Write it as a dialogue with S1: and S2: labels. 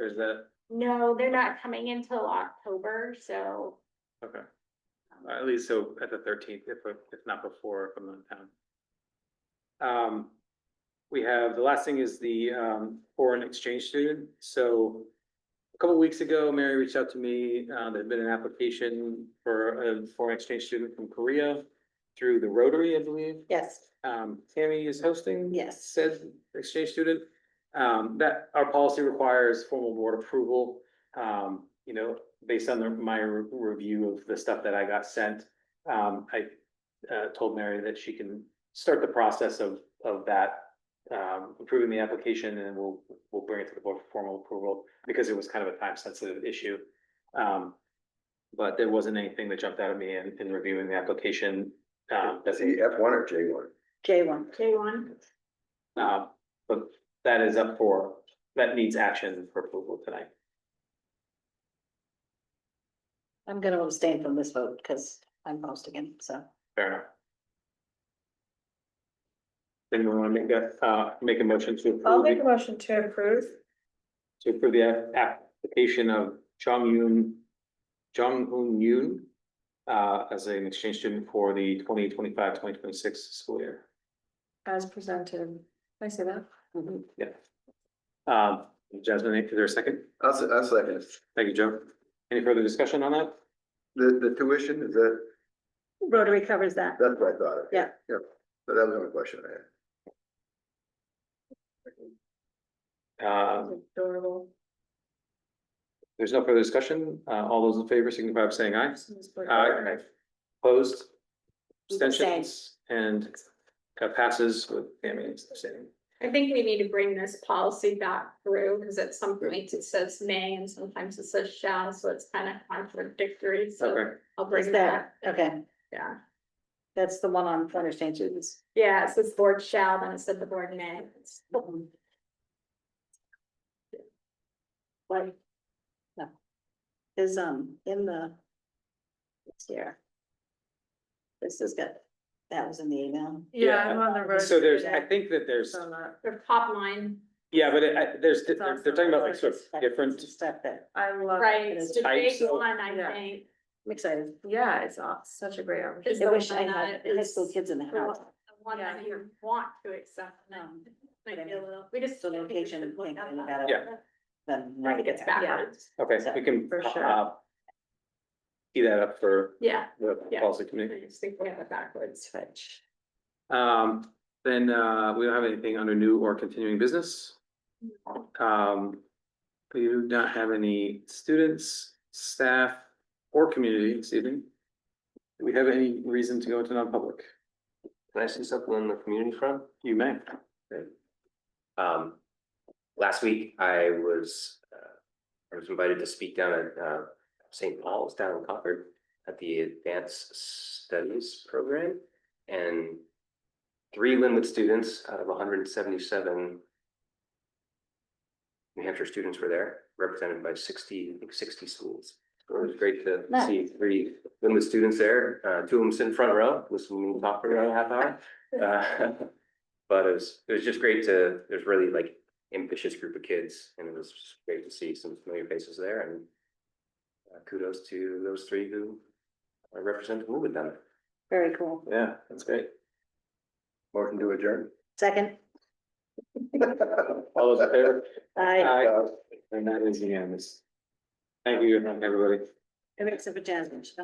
S1: is that,
S2: No, they're not coming until October, so
S1: okay. At least so at the thirteenth, if, if not before, if I'm not in town. Um, we have, the last thing is the, um, foreign exchange student, so. A couple weeks ago, Mary reached out to me, uh, there'd been an application for a foreign exchange student from Korea through the Rotary, I believe.
S3: Yes,
S1: um, Tammy is hosting.
S3: Yes.
S1: Said exchange student, um, that our policy requires formal board approval. Um, you know, based on the- my re- review of the stuff that I got sent, um, I. Uh, told Mary that she can start the process of, of that, um, approving the application and we'll, we'll bring it to the board for formal approval. Because it was kind of a time sensitive issue. Um, but there wasn't anything that jumped out at me in, in reviewing the application. Um, that's.
S4: Is he F one or J one?
S3: J one.
S2: J one.
S1: Uh, but that is up for, that needs action for approval tonight.
S3: I'm gonna abstain from this vote because I'm posting again, so.
S1: Fair enough. Anyone want to make that, uh, make a motion to
S5: I'll
S1: approve,
S5: make a
S1: the-
S5: motion to approve.
S1: to approve the app- application of Jong Yoon, Jong Hoon Yoon, uh, as an exchange student for the 2025-2026 school year.
S5: As presented. Can I say that?
S3: Mm-hmm.
S1: Yeah. Um, Jasmine, is there a second?
S4: I'll, se- I'll second. it.
S1: Thank you, Joe. Any further discussion on that?
S4: The, the tuition, is that,
S3: Rotary covers that.
S4: that's what I thought. of.
S3: Yeah.
S4: Yeah, so that was the only question I had.
S1: Uh,
S5: Adorable.
S1: there's no further discussion. Uh, all those in favor signify by saying aye. Aye. Opposed? Abstentions and uh, passes with Tammy abstaining.
S2: I think we need to bring this policy back through, because at some point it says may and sometimes it says shall, so it's kind of contradictory, so
S1: Okay,
S2: I'll bring
S3: Is
S2: it
S3: that,
S2: back.
S3: okay,
S2: Yeah,
S3: that's the one on foreign exchange students.
S2: yeah, it says board shall, then it said the board may.
S3: What? No. Is, um, in the. It's here. This is good. That was in the email.
S5: Yeah,
S1: Yeah.
S5: I'm on the road.
S1: so there's, I
S5: today,
S1: think that there's,
S5: so I'm not-
S2: The top line,
S1: yeah, but it- I, there's, they're they're talking about like sort of different,
S3: Stuff that,
S5: I love.
S2: right,
S3: it
S2: it's
S3: is
S2: the big
S1: types of-
S2: one, I
S5: Yeah.
S2: think.
S3: I'm excited.
S5: Yeah, it's aw- such a great opportunity.
S2: is
S3: I
S2: the
S3: wish I
S2: one
S3: had
S2: that
S3: high
S2: is
S3: school kids in the
S2: the
S3: house.
S2: One that
S5: Yeah.
S2: you want to accept, and
S3: Um,
S2: I
S3: but I
S2: feel a
S3: mean,
S2: little, we just.
S3: so
S2: I think we
S3: location
S2: should look
S3: thing,
S2: at
S3: we
S2: that.
S3: gotta-
S1: Yeah.
S3: Then
S2: I
S3: right
S2: think it's
S3: there.
S2: backwards,
S1: okay, so we can.
S5: For sure.
S1: uh, Key that up for
S2: yeah,
S1: the
S2: Yeah.
S1: policy
S2: I
S1: committee.
S2: just think we have it backwards, but.
S1: Um, then, uh, we don't have anything under new or continuing business.
S2: Mm.
S1: Um, we do not have any students, staff, or community this evening. Do we have any reason to go into non-public?
S6: Can I say something on the community front?
S1: You may.
S6: Um, last week I was, uh, I was invited to speak down at, uh, St. Paul's down in Concord at the Advanced Studies Program and three Linwood students out of hundred and seventy-seven New Hampshire students were there, represented by sixty, I think sixty schools. It was great to see three Linwood students there. Uh, two of them sit in front row, listening to me talk for around a half hour. Uh, But it was, it was just great to, there's really like ambitious group of kids and it was just great to see some familiar faces there and uh, kudos to those three who uh, represent the movement down there.
S3: Very cool.
S1: Yeah, that's great.
S4: Motion to adjourn.
S3: Second,
S1: All those in favor?
S3: I,
S1: Aye. And that is unanimous. Thank you, everybody.
S3: except for Jasmine.